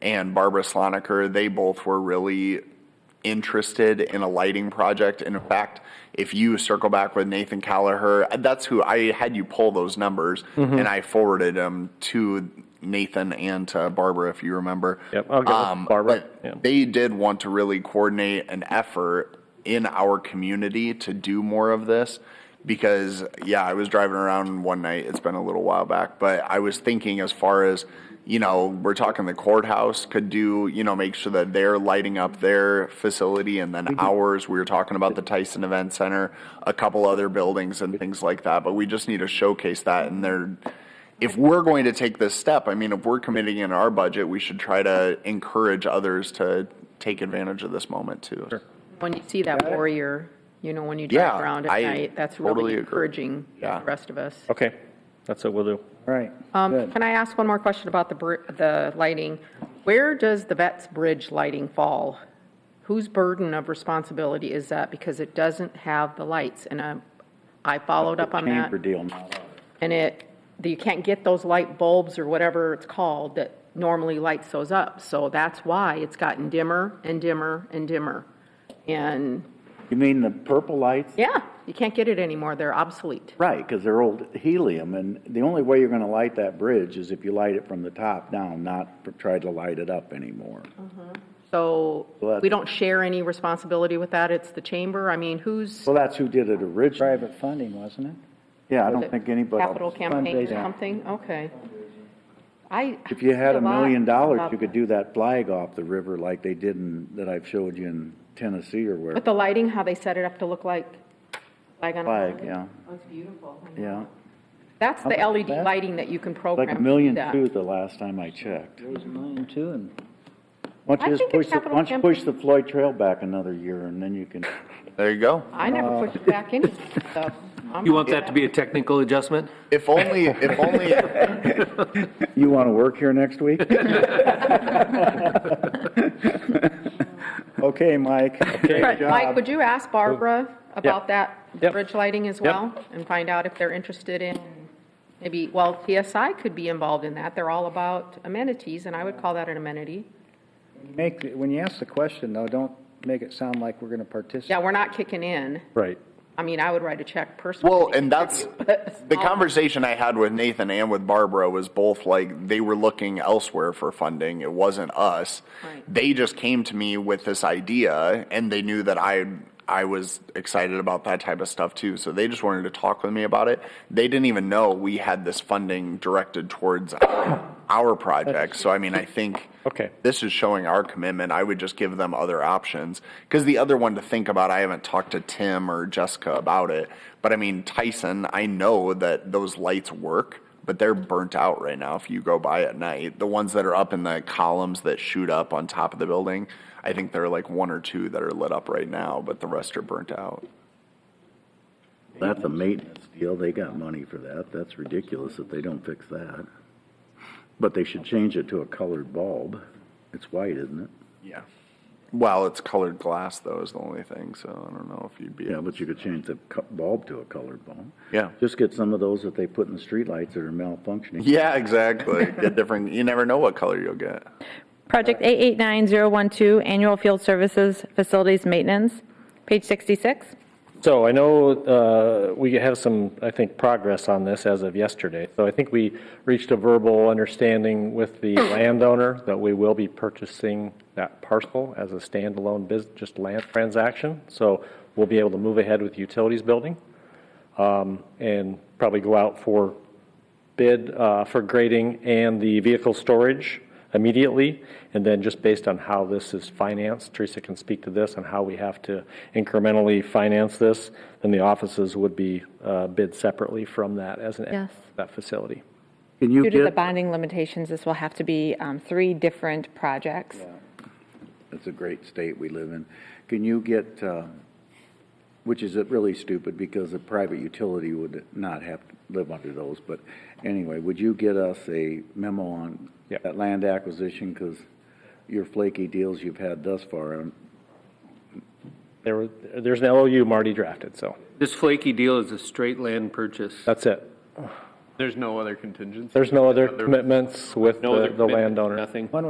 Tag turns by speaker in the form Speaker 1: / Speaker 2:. Speaker 1: and Barbara Sloniker, they both were really interested in a lighting project. And in fact, if you circle back with Nathan Callaher, that's who I had you pull those numbers
Speaker 2: Mm-hmm.
Speaker 1: and I forwarded them to Nathan and to Barbara, if you remember. Um,
Speaker 2: Yep, I'll get with Barbara,
Speaker 1: but
Speaker 2: yeah.
Speaker 1: they did want to really coordinate an effort in our community to do more of this because yeah i was driving around one night it's been a little while back but i was thinking as far as you know we're talking the courthouse could do you know make sure that they're lighting up their facility and then ours we were talking about the tyson event center a couple other buildings and things like that but we just need to showcase that and they're if we're going to take this step, I mean, if we're committing in our budget, we should try to encourage others to take advantage of this moment too.
Speaker 3: When you see that warrior, you know, when you
Speaker 1: Yeah,
Speaker 3: drive around at
Speaker 1: I
Speaker 3: night, that's
Speaker 1: totally
Speaker 3: really
Speaker 1: agree.
Speaker 3: encouraging
Speaker 1: Yeah. Oh,
Speaker 3: the rest of us.
Speaker 2: Okay, that's what we'll do.
Speaker 4: Right.
Speaker 3: Um,
Speaker 4: Good.
Speaker 3: Can I ask one more question about the, br- the lighting? Where does the Vets Bridge lighting fall? Whose burden of responsibility is that? Because it doesn't have the lights, and um, I followed up on that.
Speaker 4: Chamber deal now.
Speaker 3: And it, that you can't get those light bulbs or whatever it's called that normally lights those up. So that's why it's gotten dimmer and dimmer and dimmer. And,
Speaker 4: You mean the purple lights?
Speaker 3: yeah, you can't get it anymore, they're obsolete.
Speaker 4: Right, because they're old helium, and the only way you're going to light that bridge is if you light it from the top down, not pr- try to light it up anymore.
Speaker 3: So
Speaker 4: Well, that's-
Speaker 3: we don't share any responsibility with that, it's the chamber, I mean, who's,
Speaker 4: Well, that's who did it originally.
Speaker 5: Private funding, wasn't it?
Speaker 4: Yeah, I
Speaker 3: Was
Speaker 4: don't
Speaker 3: it
Speaker 4: think anybody.
Speaker 3: capital campaign or
Speaker 4: Fundraising.
Speaker 3: something, okay. I.
Speaker 4: If you had a
Speaker 3: lot
Speaker 4: million dollars,
Speaker 3: about
Speaker 4: you could do that flag off the river like they did in, that I've showed you in Tennessee or where.
Speaker 3: With the lighting, how they set it up to look like flag on a
Speaker 4: Flag,
Speaker 3: mountain.
Speaker 4: yeah,
Speaker 3: Oh, It's beautiful.
Speaker 4: yeah.
Speaker 3: That's the
Speaker 4: How about
Speaker 3: LED
Speaker 4: that?
Speaker 3: lighting that you can program.
Speaker 4: Like a
Speaker 3: to do
Speaker 4: million
Speaker 3: that.
Speaker 4: two the last time I checked.
Speaker 5: There was a million too, and
Speaker 4: Why don't
Speaker 3: I
Speaker 4: you just
Speaker 3: think it's
Speaker 4: push, the-
Speaker 3: capital
Speaker 4: why don't you push the
Speaker 3: campaign.
Speaker 4: Floyd Trail back another year and then you can,
Speaker 1: There you go.
Speaker 3: I never pushed it back in. so I'm
Speaker 6: You want that to be a technical adjustment?
Speaker 1: If only, if only,
Speaker 4: you want to work here next week? Okay, Mike.
Speaker 3: But Mike, would you ask Barbara about that
Speaker 2: Yep.
Speaker 3: bridge lighting as well? And find out if they're interested in, maybe, well, TSI could be involved in that. They're all about amenities, and I would call that an amenity.
Speaker 5: make, when you ask the question though, don't make it sound like we're gonna
Speaker 3: Yeah,
Speaker 5: participate.
Speaker 3: we're not kicking in.
Speaker 2: Right.
Speaker 3: I mean, I would write a check personally.
Speaker 1: well, and that's, the conversation I had with Nathan and with Barbara was both like, they were looking elsewhere for funding. It wasn't us.
Speaker 3: Right.
Speaker 1: They just came to me with this idea and they knew that I, I was excited about that type of stuff too. So they just wanted to talk with me about it. They didn't even know we had this funding directed towards our, our project. So I mean, I think.
Speaker 2: Okay.
Speaker 1: this is showing our commitment. I would just give them other options. Because the other one to think about, I haven't talked to Tim or Jessica about it. But I mean, Tyson, I know that those lights work, but they're burnt out right now if you go by at night. The ones that are up in the columns that shoot up on top of the building, I think there are like one or two that are lit up right now, but the rest are burnt out.
Speaker 4: That's a maintenance deal. They got money for that. That's ridiculous that they don't fix that. But they should change it to a colored bulb. It's white, isn't it?
Speaker 1: Yeah. Well, it's colored glass, though, is the only thing. So I don't know if you'd be.
Speaker 4: Yeah, but you could change the co- bulb to a colored bulb.
Speaker 1: Yeah.
Speaker 4: Just get some of those that they put in the streetlights that are malfunctioning.
Speaker 1: Yeah, exactly. Get different. You never know what color you'll get.
Speaker 7: Project 889012, Annual Field Services Facilities Maintenance, page 66.
Speaker 2: So I know uh, we have some, I think, progress on this as of yesterday. So I think we reached a verbal understanding with the landowner that we will be purchasing that parcel as a standalone business, just land transaction. So we'll be able to move ahead with utilities building um, and probably go out for bid uh, for grading and the vehicle storage immediately. And then just based on how this is financed, Teresa can speak to this, on how we have to incrementally finance this, then the offices would be uh, bid separately from that as an,
Speaker 7: Yes.
Speaker 2: that facility.
Speaker 4: Can you
Speaker 7: Due to the
Speaker 4: get,
Speaker 7: bonding limitations, this will have to be um, three different projects.
Speaker 4: it's a great state we live in. Can you get, um, which is really stupid because a private utility would not have to live under those. But anyway, would you get us a memo on
Speaker 2: Yep.
Speaker 4: that land acquisition? Because your flaky deals you've had thus far, um,
Speaker 2: There, were- there's an LOU Marty drafted, so
Speaker 6: This flaky deal is a straight land purchase.
Speaker 2: that's it.
Speaker 8: There's no other contingency.
Speaker 2: There's no other
Speaker 8: Other-
Speaker 2: commitments with
Speaker 8: No
Speaker 2: the
Speaker 8: other
Speaker 2: the
Speaker 8: commitment,
Speaker 2: landowner.
Speaker 8: Nothing.